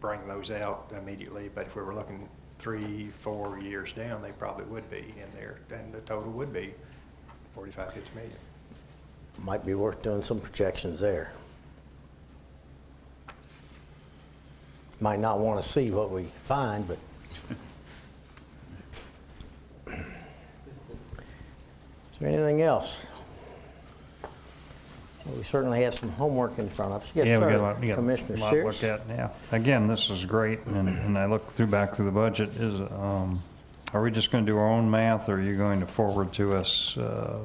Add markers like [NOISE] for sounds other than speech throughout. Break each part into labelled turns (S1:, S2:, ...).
S1: bring those out immediately, but if we were looking three, four years down, they probably would be in there, and the total would be 45, 50 million.
S2: Might be worth doing some projections there. Might not want to see what we find, but is there anything else? Well, We certainly have some homework in front of us. Yes,
S3: Yeah, we got a
S2: sir.
S3: lot, we got a
S2: Commissioner
S3: lot to look
S2: Sears?
S3: at now. Again, this is great, and, and I look through, back through the budget, is, um, are we just gonna do our own math, or are you going to forward to us, uh,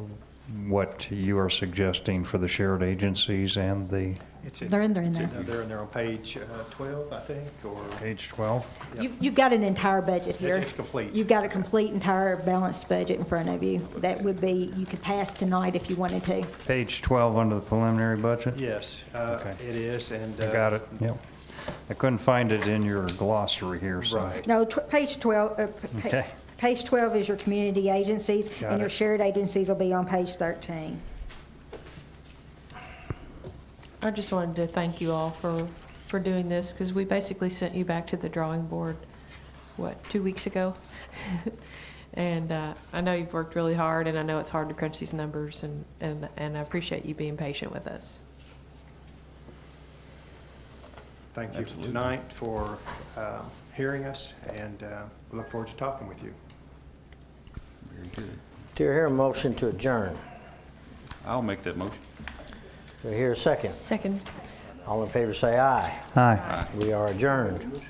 S3: what you are suggesting for the shared agencies and the
S1: It's in-
S4: They're in there, in
S1: it's
S4: there.
S1: They're in there on page uh, 12, I think, or,
S3: page twelve?
S1: Yep.
S4: You've, you've got an entire budget here.
S1: It's- it's complete.
S4: You've got a complete, entire balanced budget in front of you. That would be, you could pass tonight if you wanted to.
S3: Page twelve under the preliminary budget?
S1: yes, uh,
S3: Okay.
S1: it is, and.
S3: I
S1: uh,
S3: got it, yep. I couldn't find it in your glossary here, so.
S1: Right.
S4: No, tw- page 12, uh, p- pa-
S3: Okay.
S4: page 12 is your community agencies,
S3: Got
S4: and your
S3: it.
S4: shared agencies will be on page 13.
S5: I just wanted to thank you all for, for doing this, because we basically sent you back to the drawing board, what, two weeks ago? [LAUGHS] And uh, I know you've worked really hard, and I know it's hard to crunch these numbers, and, and, and I appreciate you being patient with us.
S1: Thank you tonight for um, hearing us, and uh, we look forward to talking with you.
S2: Do you hear a motion to adjourn?
S6: I'll make that motion.
S2: Do you hear a second?
S5: Second.
S2: All in favor, say aye.
S3: Hi.
S2: We are adjourned.